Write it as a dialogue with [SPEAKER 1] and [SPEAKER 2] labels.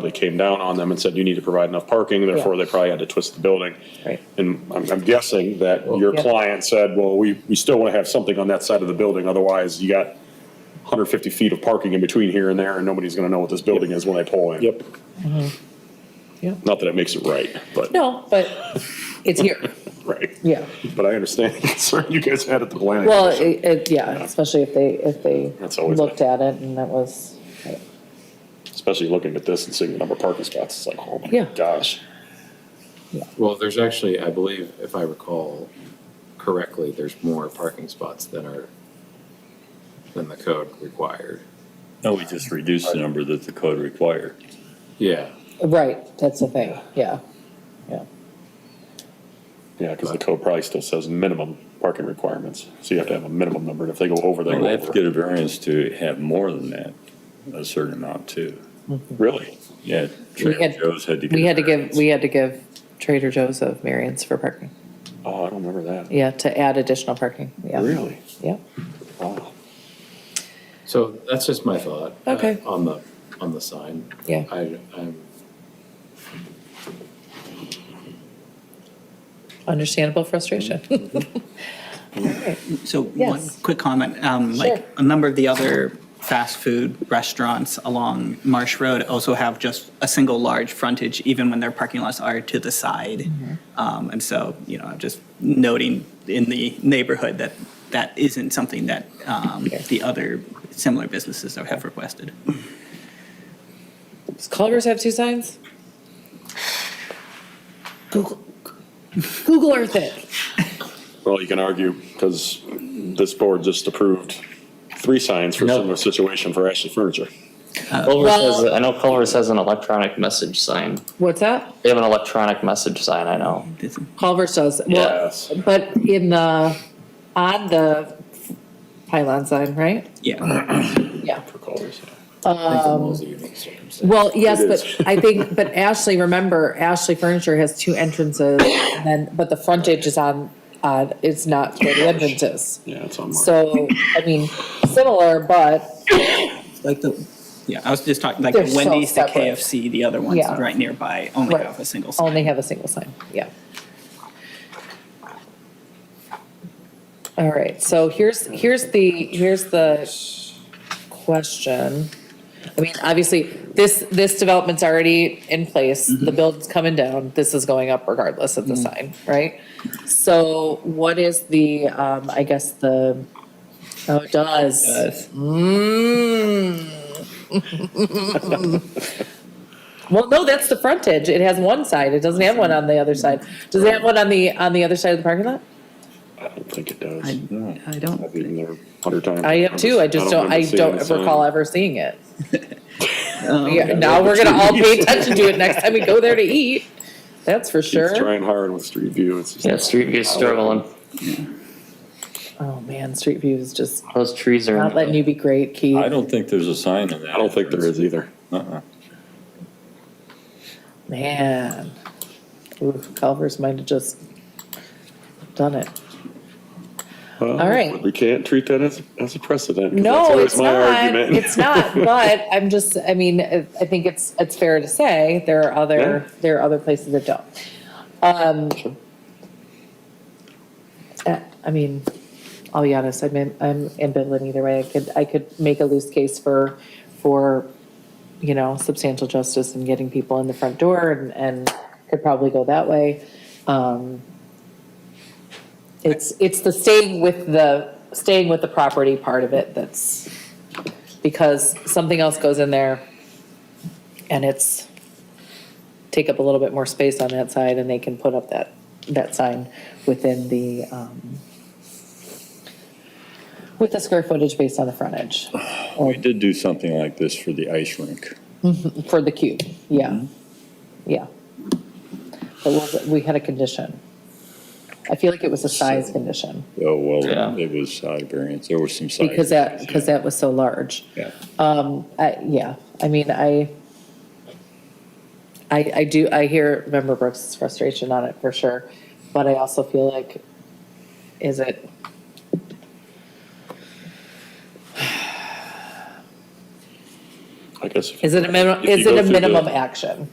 [SPEAKER 1] probably came down on them and said, you need to provide enough parking, therefore they probably had to twist the building.
[SPEAKER 2] Right.
[SPEAKER 1] And I'm, I'm guessing that your
[SPEAKER 2] Yeah.
[SPEAKER 1] client said, well, we, we still want to have something on that side of the building, otherwise you got 150 feet of parking in between here and there, and nobody's going to know what this building is when they pull in. Yep.
[SPEAKER 2] Yeah.
[SPEAKER 1] Not that it makes it right, but,
[SPEAKER 2] No, but it's here.
[SPEAKER 1] right.
[SPEAKER 2] Yeah.
[SPEAKER 1] But I understand the concern you guys had at the planning.
[SPEAKER 2] Well,
[SPEAKER 1] commission.
[SPEAKER 2] it, it, yeah, especially if they, if they
[SPEAKER 1] That's always
[SPEAKER 2] looked at it and that was,
[SPEAKER 1] Especially looking at this and seeing the number of parking spots, it's like, oh my
[SPEAKER 2] Yeah.
[SPEAKER 1] gosh.
[SPEAKER 3] Well, there's actually, I believe, if I recall correctly, there's more parking spots than are, than the code required.
[SPEAKER 4] No, we just reduced the number that the code required.
[SPEAKER 3] Yeah,
[SPEAKER 2] right, that's the thing, yeah, yeah.
[SPEAKER 1] Yeah, because the code probably still says minimum parking requirements, so you have to have a minimum number, and if they go over, they
[SPEAKER 4] They
[SPEAKER 1] go
[SPEAKER 4] have to
[SPEAKER 1] over.
[SPEAKER 4] get a variance to have more than that, a certain amount too.
[SPEAKER 1] Really?
[SPEAKER 4] Yeah,
[SPEAKER 2] We
[SPEAKER 4] Trader
[SPEAKER 2] had,
[SPEAKER 4] Joe's had to get.
[SPEAKER 2] we
[SPEAKER 4] a
[SPEAKER 2] had to give,
[SPEAKER 4] variance.
[SPEAKER 2] we had to give Trader Joe's a variance for parking,
[SPEAKER 1] Oh, I don't remember that.
[SPEAKER 2] yeah, to add additional parking, yeah.
[SPEAKER 1] Really?
[SPEAKER 2] Yeah,
[SPEAKER 1] Wow.
[SPEAKER 3] so that's just my thought. uh,
[SPEAKER 2] Okay.
[SPEAKER 3] On the, on the sign.
[SPEAKER 2] Yeah.
[SPEAKER 3] I, I'm,
[SPEAKER 2] understandable frustration.
[SPEAKER 5] So one
[SPEAKER 2] Yes.
[SPEAKER 5] quick comment, um,
[SPEAKER 2] Sure.
[SPEAKER 5] like a number of the other fast food restaurants along Marsh Road also have just a single large frontage, even when their parking lots are to the side.
[SPEAKER 2] Mm-hmm.
[SPEAKER 5] Um, and so, you know, I'm just noting in the neighborhood that that isn't something that, um, the other similar businesses have requested.
[SPEAKER 2] Does Culver's have two signs? Google, Google Earth it.
[SPEAKER 1] Well, you can argue, because this board just approved three signs for
[SPEAKER 6] No.
[SPEAKER 1] similar situation for Ashley Furniture.
[SPEAKER 6] Culver
[SPEAKER 2] Well-
[SPEAKER 6] says, I know Culver says an electronic message sign.
[SPEAKER 2] What's that?
[SPEAKER 6] They have an electronic message sign, I know.
[SPEAKER 5] It's-
[SPEAKER 2] Culver's does, well,
[SPEAKER 1] Yes.
[SPEAKER 2] but in the, on the pylon sign, right?
[SPEAKER 5] Yeah.
[SPEAKER 2] Yeah.
[SPEAKER 1] For Culver's.
[SPEAKER 3] I think the mall's a unique circumstance.
[SPEAKER 2] Well, yes,
[SPEAKER 1] It
[SPEAKER 2] but I think, but Ashley, remember, Ashley Furniture has two entrances, and then, but the frontage is on, uh, it's not where the entrance is.
[SPEAKER 1] Yeah, it's on. Mark.
[SPEAKER 2] So, I mean, similar, but,
[SPEAKER 5] Like the, yeah, I was just talking, like
[SPEAKER 2] They're so
[SPEAKER 5] Wendy's, the
[SPEAKER 2] separate.
[SPEAKER 5] KFC, the other ones
[SPEAKER 2] Yeah.
[SPEAKER 5] right nearby only
[SPEAKER 2] Right.
[SPEAKER 5] have a single sign.
[SPEAKER 2] only have a single sign, yeah. All right, so here's, here's the, here's the question. I mean, obviously, this, this development's already in place,
[SPEAKER 5] Mm-hmm.
[SPEAKER 2] the build's coming down, this is going up regardless of the sign, right? So what is the, um, I guess the, oh, it does. Mm. Well, no, that's the frontage, it has one side, it doesn't have one on the other side. Does it have one on the, on the other side of the parking lot?
[SPEAKER 1] I don't think it does.
[SPEAKER 5] I- I don't.
[SPEAKER 1] I've been there a hundred times.
[SPEAKER 2] I am too, I just don't, I
[SPEAKER 1] remember
[SPEAKER 2] don't
[SPEAKER 1] seeing the
[SPEAKER 2] recall
[SPEAKER 1] sign.
[SPEAKER 2] ever seeing it.
[SPEAKER 5] Um,
[SPEAKER 2] Yeah, now we're gonna all pay attention to it next time we go there to eat, that's for
[SPEAKER 1] Keeps
[SPEAKER 2] sure.
[SPEAKER 1] trying hard with Street View, it's just.
[SPEAKER 6] Yeah, Street View's struggling.
[SPEAKER 2] Oh, man, Street View is just
[SPEAKER 6] Those trees are.
[SPEAKER 2] not letting you be great, Keith.
[SPEAKER 4] I don't think there's a sign in that.
[SPEAKER 1] I don't think there is either.
[SPEAKER 4] Uh-uh.
[SPEAKER 2] Man, Ooh, Culver's might have just done it. All right.
[SPEAKER 1] We can't treat that as, as a precedent. 'cause that's
[SPEAKER 2] No,
[SPEAKER 1] always
[SPEAKER 2] it's
[SPEAKER 1] my
[SPEAKER 2] not.
[SPEAKER 1] argument.
[SPEAKER 2] It's not. But I'm just. I mean, I I think it's it's fair to say there are other
[SPEAKER 1] Yeah.
[SPEAKER 2] there are other places that don't. Um, uh, I mean, I'll be honest. I'm in, I'm ambivalent either way. I could I could make a loose case for for you know substantial justice and getting people in the front door and and could probably go that way. Um, it's it's the staying with the staying with the property part of it that's because something else goes in there and it's take up a little bit more space on that side and they can put up that that sign within the um with the square footage based on the frontage
[SPEAKER 4] Oh, We did do something like this for the ice rink.
[SPEAKER 2] for the cube, yeah. Yeah. But was, we had a condition. I feel like it was a size condition
[SPEAKER 4] Oh, well,
[SPEAKER 6] Yeah.
[SPEAKER 4] it was side variance. There was some side.
[SPEAKER 2] because that because that was so large.
[SPEAKER 4] Yeah.
[SPEAKER 2] I, yeah, I mean, I, I, I do, I hear member Brooks' frustration on it for sure, but I also feel like, is it?
[SPEAKER 1] I
[SPEAKER 4] guess. if-
[SPEAKER 2] Is it a minimum,
[SPEAKER 4] if you
[SPEAKER 2] is
[SPEAKER 4] go
[SPEAKER 2] it a
[SPEAKER 4] through the-
[SPEAKER 2] minimum action?